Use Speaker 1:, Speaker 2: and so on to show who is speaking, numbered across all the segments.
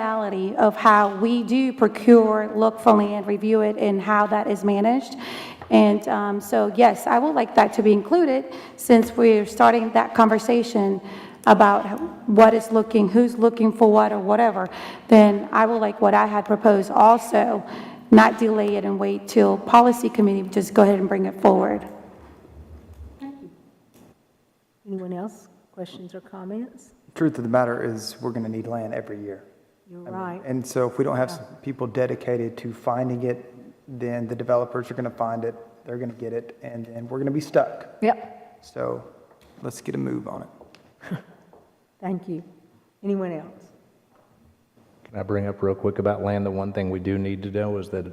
Speaker 1: formality of how we do procure, look fully, and review it, and how that is managed. And um, so, yes, I would like that to be included, since we're starting that conversation about what is looking, who's looking for what or whatever, then I would like what I had proposed also, not delay it and wait till policy committee, just go ahead and bring it forward.
Speaker 2: Anyone else? Questions or comments?
Speaker 3: Truth of the matter is, we're going to need land every year.
Speaker 2: You're
Speaker 3: I mean,
Speaker 2: right.
Speaker 3: And so if we don't have some people dedicated to finding it, then the developers are going to find it, they're going to get it, and then we're going to be stuck.
Speaker 2: Yep.
Speaker 3: So let's get a move on it.
Speaker 2: Thank you. Anyone else?
Speaker 4: Can I bring up real quick about land? The one thing we do need to know is that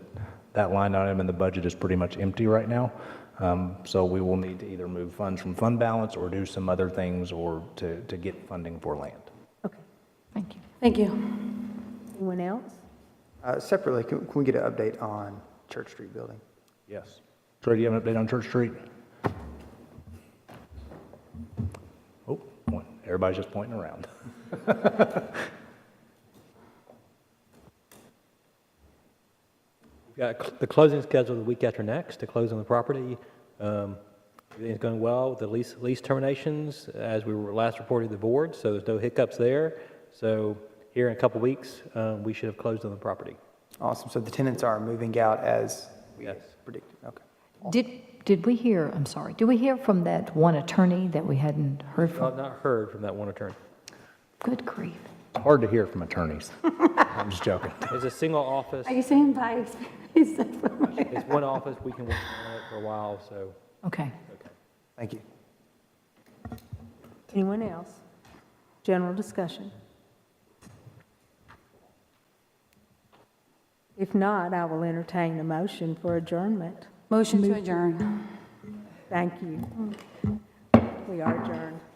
Speaker 4: that line item in the budget is pretty much empty right now. Um, So we will need to either move funds from fund balance or do some other things or to, to get funding for land.
Speaker 2: Okay.
Speaker 5: Thank you.
Speaker 1: Thank you.
Speaker 2: Anyone else?
Speaker 3: Uh, Separately, can can we get an update on Church Street building?
Speaker 4: Yes. Troy, do you have an update on Church Street? Oh, point. everybody's just pointing around.
Speaker 6: Got cl- the closing scheduled the week after next to close on the property. Um, Everything's going well, the lease, lease terminations, as we were last reported to the board, so there's no hiccups there. So here in a couple weeks, um, we should have closed on the property.
Speaker 3: Awesome, so the tenants are moving out as we
Speaker 6: Yes.
Speaker 3: predicted, okay.
Speaker 5: Did, did we hear, I'm sorry, did we hear from that one attorney that we hadn't heard
Speaker 6: I've
Speaker 5: from?
Speaker 6: not heard from that one attorney.
Speaker 5: Good grief.
Speaker 4: Hard to hear from attorneys. I'm just joking.
Speaker 6: It's a single office,
Speaker 1: Are you saying by experience?
Speaker 6: it's one office, we can work on it for a while, so.
Speaker 5: Okay.
Speaker 3: Thank you.
Speaker 2: Anyone else? General discussion. If not, I will entertain a motion for adjournment.
Speaker 1: Motion to adjourn.
Speaker 2: Thank you. We are adjourned.